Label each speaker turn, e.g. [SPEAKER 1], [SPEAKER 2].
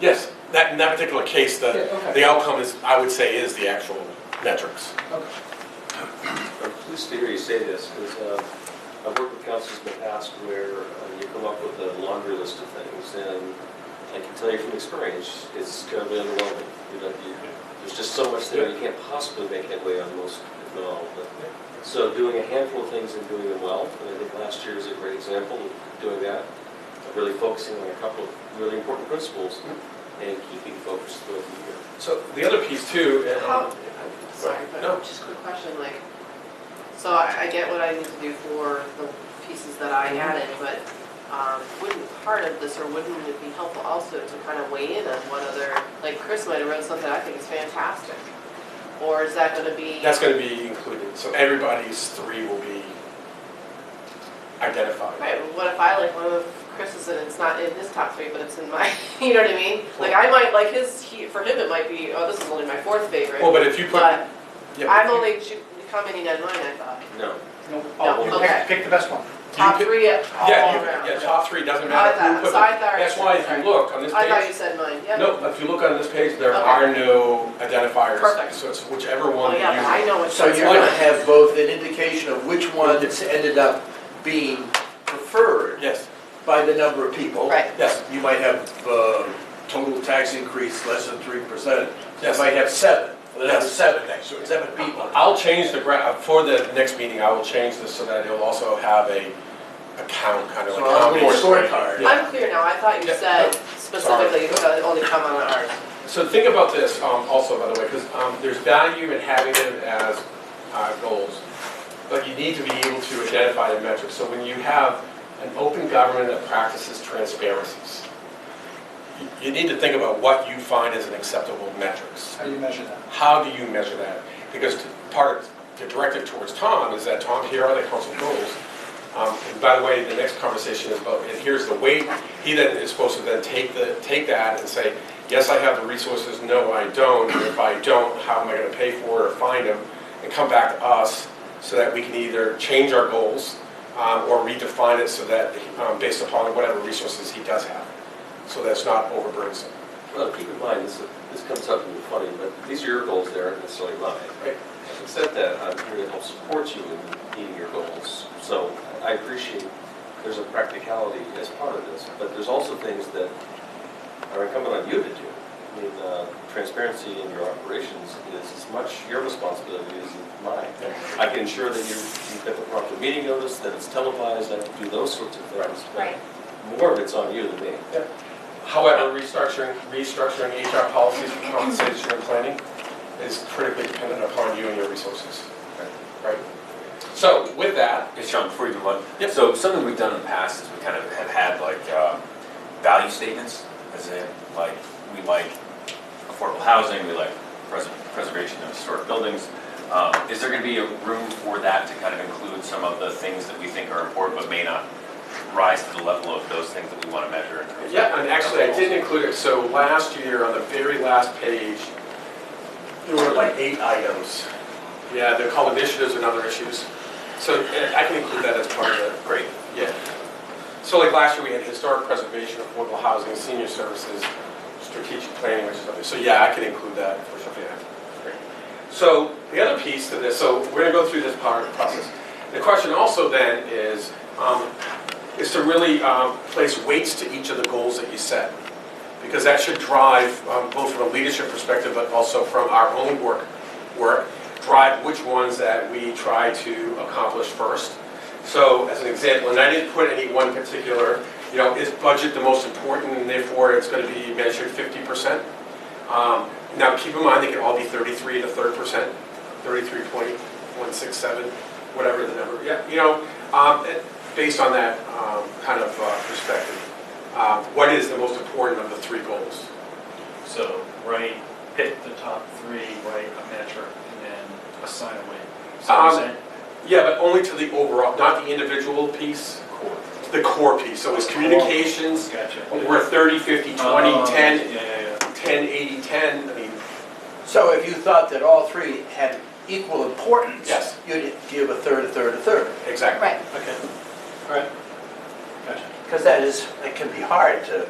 [SPEAKER 1] Yes, that, in that particular case,
[SPEAKER 2] Yeah,
[SPEAKER 1] the,
[SPEAKER 2] okay.
[SPEAKER 1] the outcome is, I would say, is the actual metrics.
[SPEAKER 2] Okay.
[SPEAKER 3] Uh, Please to hear you say this, because I've worked with councils in the past where uh, you come up with a laundry list of things, and I can tell you from experience, it's terribly underwhelming. You know, you- There's just so much there, you can't possibly make headway on most, if not all of it. So doing a handful of things and doing them well, and I think last year is a great example of doing that, of really focusing on a couple of really important principles and keeping focused throughout the year.
[SPEAKER 1] So the other piece too, and-
[SPEAKER 4] How, sorry, but
[SPEAKER 1] No.
[SPEAKER 4] just a quick question, like, so I I get what I need to do for the pieces that I
[SPEAKER 1] Mm-hmm.
[SPEAKER 4] added, but um, wouldn't part of this, or wouldn't it be helpful also to kind of weigh in on what other, like Chris might have wrote something I think is fantastic? Or is that gonna be,
[SPEAKER 1] that's gonna be included, so everybody's three will be identified.
[SPEAKER 4] right, well, what if I like one of Chris's and it's not in his top three, but it's in my, you know what I mean? Like I might, like his, he, for him, it might be, oh, this is only my fourth favorite,
[SPEAKER 1] Well, but if you put, yeah,
[SPEAKER 4] but
[SPEAKER 1] but
[SPEAKER 4] I'm
[SPEAKER 1] if you-
[SPEAKER 4] only ju- commenting on mine, I thought.
[SPEAKER 3] No,
[SPEAKER 2] No,
[SPEAKER 4] No,
[SPEAKER 2] oh, you
[SPEAKER 4] okay.
[SPEAKER 2] pick, pick the best one.
[SPEAKER 4] Top
[SPEAKER 1] pick-
[SPEAKER 4] three all
[SPEAKER 1] Yeah, you-
[SPEAKER 4] around.
[SPEAKER 1] yeah, top three, doesn't
[SPEAKER 4] I
[SPEAKER 1] matter who
[SPEAKER 4] thought,
[SPEAKER 1] put
[SPEAKER 4] so I
[SPEAKER 1] it.
[SPEAKER 4] thought.
[SPEAKER 1] That's why if you look on this
[SPEAKER 4] I thought you
[SPEAKER 1] page,
[SPEAKER 4] said mine, yep.
[SPEAKER 1] no, if you look on this page, there
[SPEAKER 4] Okay.
[SPEAKER 1] are no identifiers.
[SPEAKER 4] Perfect.
[SPEAKER 1] So it's whichever
[SPEAKER 4] Well,
[SPEAKER 1] one you.
[SPEAKER 4] Oh, yeah, but I know what
[SPEAKER 5] So
[SPEAKER 4] that's
[SPEAKER 5] you're going to
[SPEAKER 4] mine.
[SPEAKER 5] have both an indication of which ones ended up being preferred
[SPEAKER 1] Yes,
[SPEAKER 5] by the number of people.
[SPEAKER 4] Right,
[SPEAKER 1] yes,
[SPEAKER 5] You might have uh, total tax increase less than 3%. You
[SPEAKER 1] yes.
[SPEAKER 5] might have seven, Well, that's
[SPEAKER 1] Yes.
[SPEAKER 5] seven next to it, seven people.
[SPEAKER 1] I'll change the gra, uh, for the next meeting, I will change this so that it'll also have a account, kind of
[SPEAKER 5] So
[SPEAKER 1] like.
[SPEAKER 5] I'll
[SPEAKER 1] how
[SPEAKER 5] do a
[SPEAKER 1] many-
[SPEAKER 5] scorecard.
[SPEAKER 1] Yeah.
[SPEAKER 4] I'm clear now, I thought you
[SPEAKER 1] Yeah,
[SPEAKER 4] said
[SPEAKER 1] no.
[SPEAKER 4] specifically you could only comment on ours.
[SPEAKER 1] So think about this um, also, by the way, because there's value in having them as uh, goals, but you need to be able to identify the metrics. So when you have an open government that practices transparencies, you- you need to think about what you find as an acceptable metrics.
[SPEAKER 2] How do you measure that?
[SPEAKER 1] How do you measure that? Because t- part of the directive towards Tom is that, Tom, here are the council goals. Um, And by the way, the next conversation is about, and here's the weight. He then is supposed to then take the, take that and say, yes, I have the resources, no, I don't. And If I don't, how am I going to pay for it or find them? And come back to us so that we can either change our goals um, or redefine it so that, um, based upon whatever resources he does have. So that's not overburdensome.
[SPEAKER 3] Well, keep in mind, this, this comes up in the funny, but these are your goals, they aren't necessarily mine.
[SPEAKER 1] Right.
[SPEAKER 3] Except that I'm here to help support you in meeting your goals, so I appreciate there's a practicality as part of this, but there's also things that are incumbent on you to do. I mean, uh, transparency in your operations is as much your responsibility as mine. I can ensure that you, you've got the proper meeting notice, that it's televised, I can do those sorts of things. but
[SPEAKER 6] Right.
[SPEAKER 3] More of it's on you than me.
[SPEAKER 1] However, restructuring, restructuring HR policies for compensation and planning is critically dependent upon you and your resources. Right? So with that,
[SPEAKER 7] Hey, Sean, before you move on.
[SPEAKER 1] Yep.
[SPEAKER 7] So something we've done in the past is we kind of have had like uh, value statements, as in like, we like affordable housing, we like pres- preservation of historic buildings. Um, Is there going to be a room for that to kind of include some of the things that we think are important but may not rise to the level of those things that we want to measure in terms of?
[SPEAKER 1] yeah, and actually, I didn't include it, so last year, on the very last page, there were like eight items. Yeah, they're called initiatives and other issues. So eh, I can include that as part of it.
[SPEAKER 7] Great.
[SPEAKER 1] Yeah. So like last year, we had historic preservation, affordable housing, senior services, strategic planning, which is something, so yeah, I can include that for sure, yeah. Great. So the other piece to this, so we're gonna go through this part of the process. The question also then is, um, is to really um, place weights to each of the goals that you set. Because that should drive, um, both from a leadership perspective, but also from our own work, work, drive which ones that we try to accomplish first. So as an example, and I didn't put any one particular, you know, is budget the most important and therefore it's going to be measured 50%? Um, Now, keep in mind, they can all be 33 to 3rd percent, 33.167, whatever the number, yeah, you know, um, it- based on that um, kind of uh, perspective. uh, What is the most important of the three goals?
[SPEAKER 8] So write, pick the top three, write a metric, and then assign a weight. So
[SPEAKER 1] Um,
[SPEAKER 8] you're saying
[SPEAKER 1] Yeah, but only to the overall, not the individual piece,
[SPEAKER 8] core.
[SPEAKER 1] the core piece. So it's communications,
[SPEAKER 8] Gotcha.
[SPEAKER 1] we're 30, 50, 20,
[SPEAKER 8] Oh,
[SPEAKER 1] 10,
[SPEAKER 8] Yeah, yeah,
[SPEAKER 1] 10, 80, 10, I mean,
[SPEAKER 5] So if you thought that all three had equal importance,
[SPEAKER 1] Yes.
[SPEAKER 5] you'd give a third, a third, a third.
[SPEAKER 1] exactly.
[SPEAKER 6] Right.
[SPEAKER 8] yeah. Okay. All right. Gotcha.
[SPEAKER 5] Because that is, it can be hard to